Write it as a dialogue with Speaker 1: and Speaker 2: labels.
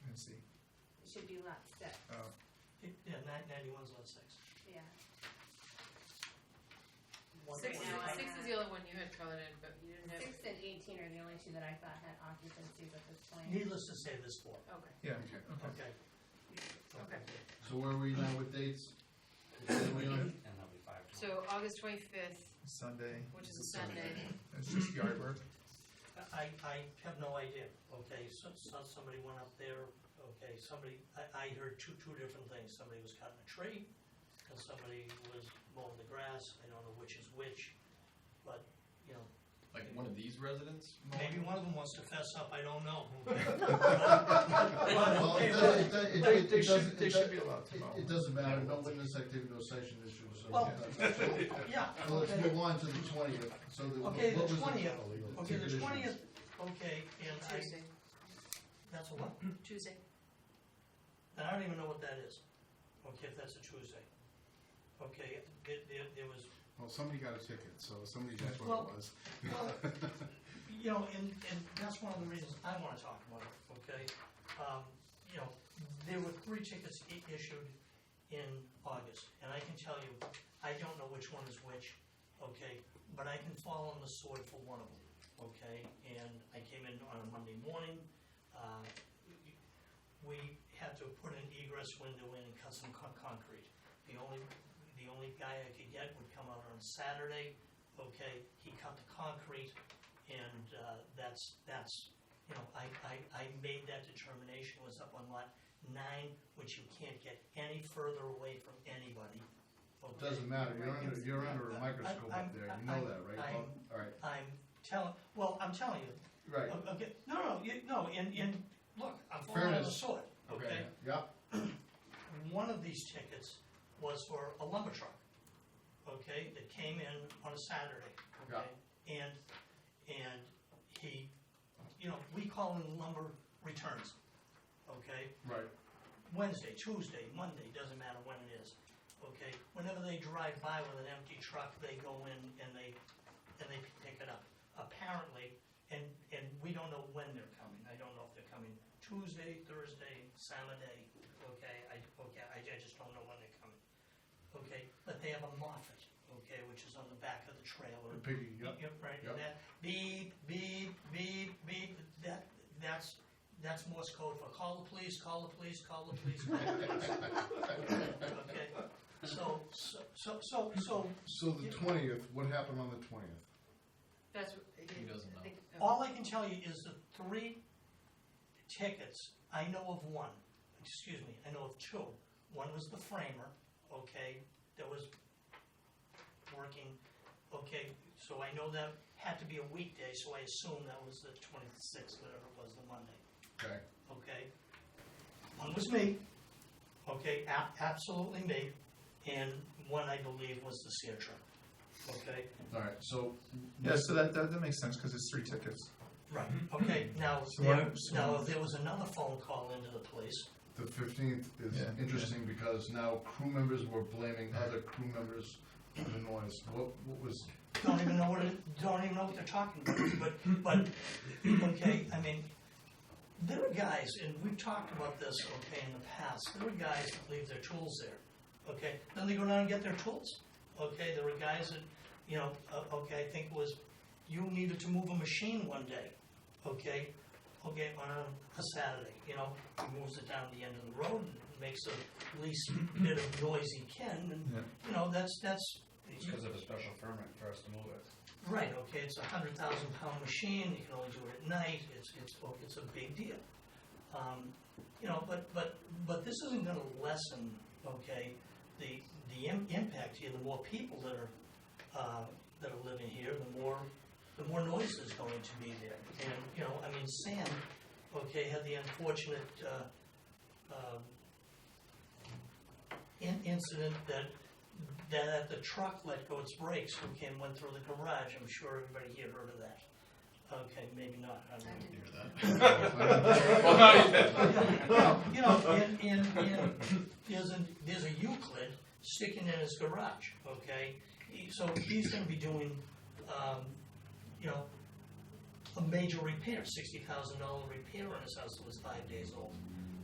Speaker 1: should be lot six,
Speaker 2: Oh,
Speaker 3: Yeah, nine, ninety-one's on six.
Speaker 1: yeah.
Speaker 3: One
Speaker 4: Six,
Speaker 1: Right now, I
Speaker 3: forty-five.
Speaker 4: six is the only one you had colored in, but you didn't have,
Speaker 1: Six and eighteen are the only two that I thought had occupancies at this point.
Speaker 3: Needless to say, this four,
Speaker 4: okay.
Speaker 2: yeah, okay.
Speaker 3: okay?
Speaker 4: Okay.
Speaker 5: So where are we now with dates? Where we are?
Speaker 6: And that'll be five. tomorrow.
Speaker 4: So August twenty-fifth,
Speaker 2: Sunday,
Speaker 4: which is a Sunday,
Speaker 2: it's just yard work.
Speaker 3: I, I have no idea, okay, so, so somebody went up there, okay, somebody, I, I heard two, two different things, somebody was cutting a tree, and somebody was mowing the grass, I don't know which is which, but, you know,
Speaker 5: Like one of these residents?
Speaker 3: maybe one of them wants to fess up, I don't know.
Speaker 5: Well, it does- it does- it-
Speaker 2: They,
Speaker 5: it
Speaker 2: they should,
Speaker 5: doesn't-
Speaker 2: they
Speaker 5: it
Speaker 2: should be
Speaker 5: does-
Speaker 2: allowed to
Speaker 5: It,
Speaker 2: mow.
Speaker 5: it doesn't matter, no witness activity, no session issued, so.
Speaker 3: Well,
Speaker 5: So
Speaker 3: Yeah,
Speaker 5: let's
Speaker 3: okay.
Speaker 5: move on to the twentieth, so the. what-
Speaker 3: Okay, the
Speaker 5: what was
Speaker 3: 20th. Okay, the
Speaker 5: conditions?
Speaker 3: twentieth, okay, and I,
Speaker 4: Tuesday,
Speaker 3: that's a what?
Speaker 4: Tuesday.
Speaker 3: And I don't even know what that is, okay, if that's a Tuesday. Okay, there, there, there was,
Speaker 7: Well, somebody got a ticket, so somebody, that's
Speaker 3: Well-
Speaker 7: what it was.
Speaker 3: well, you know, and, and that's one of the reasons I wanna talk about it, okay? Um, you know, there were three tickets i- issued in August, and I can tell you, I don't know which one is which, okay? But I can fall on the sword for one of them, okay? And I came in on a Monday morning, uh, we had to put an egress window in and cut some con- concrete. The only, the only guy I could get would come out on Saturday, okay, he cut the concrete, and, uh, that's, that's, you know, I, I, I made that determination, was up on lot nine, which you can't get any further away from anybody, okay?
Speaker 5: Doesn't matter, you're under, you're under a microscope
Speaker 3: I'm-
Speaker 5: up there, you
Speaker 3: I'm-
Speaker 5: know that, right? Bob? All right,
Speaker 3: I'm telling, well, I'm telling you,
Speaker 5: right,
Speaker 3: Okay, no, no, you, no, and, and, look, I'm falling on the
Speaker 5: Fairness.
Speaker 3: sword,
Speaker 5: okay,
Speaker 3: okay?
Speaker 5: yeah,
Speaker 3: One of these tickets was for a lumber truck, okay, that came in on a Saturday, okay? And, and he, you know, we call in lumber returns, okay?
Speaker 5: right.
Speaker 3: Wednesday, Tuesday, Monday, doesn't matter when it is, okay? Whenever they drive by with an empty truck, they go in and they, and they pick it up, apparently. And, and we don't know when they're coming, I don't know if they're coming Tuesday, Thursday, Saturday, okay? I, okay, I, I just don't know when they're coming, okay? But they have a Moffett, okay, which is on the back of the trailer.
Speaker 5: Piggy, yeah.
Speaker 3: Yep, right,
Speaker 5: Yep.
Speaker 3: and that beep, beep, beep, beep, that, that's, that's Morse code for call the police, call the police, call the police, call the police. Okay, so, so, so, so, so,
Speaker 7: So the twentieth, what happened on the twentieth?
Speaker 4: That's. what-
Speaker 5: He doesn't know.
Speaker 4: I think- oh.
Speaker 3: all I can tell you is the three tickets, I know of one, excuse me, I know of two. One was the framer, okay, that was working, okay, so I know that had to be a weekday, so I assume that was the twenty-sixth, whatever it was, the Monday.
Speaker 7: Okay,
Speaker 3: okay? One was me, okay, a- absolutely me, and one I believe was the seer truck, okay?
Speaker 5: All right, so.
Speaker 2: Yeah, so that, that, that makes sense, cause it's three tickets.
Speaker 3: Right. Okay, now,
Speaker 2: So why
Speaker 3: there,
Speaker 2: don't- so-
Speaker 3: now, if there was another phone call into the police,
Speaker 5: The fifteenth is
Speaker 2: Yeah.
Speaker 5: interesting because now crew members were blaming other crew members for the noise. What, what was,
Speaker 3: don't even know what, it- don't even know what they're talking about, but, but, okay, I mean, there are guys, and we've talked about this, okay, in the past, there are guys that leave their tools there, okay? Then they go down and get their tools, okay? There were guys that, you know, uh, okay, I think it was, you needed to move a machine one day, okay? Okay, on a a Saturday, you know, he moves it down the end of the road, and makes the least bit of noise he can,
Speaker 2: Yeah.
Speaker 3: and, you know, that's, that's,
Speaker 6: It's because of a special permit for us to move it.
Speaker 3: Right, okay, it's a hundred thousand pound machine, you can only do it at night, it's, it's, oh, it's a big deal. Um, You know, but, but, but this isn't gonna lessen, okay, the, the im- impact here, the more people that are, uh, that are living here, the more, the more noise is going to be there. And, you know, I mean, Sam, okay, had the unfortunate, uh, um, in- incident that that the truck let go its brakes, who came, went through the garage, I'm sure everybody here heard of that. Okay, maybe not, I don't know. Well, You know, and, and, and there's a, there's a Euclid sticking in his garage, okay? He- So he's gonna be doing, um, you know, a major repair, sixty thousand dollar repair on his house that was five days old,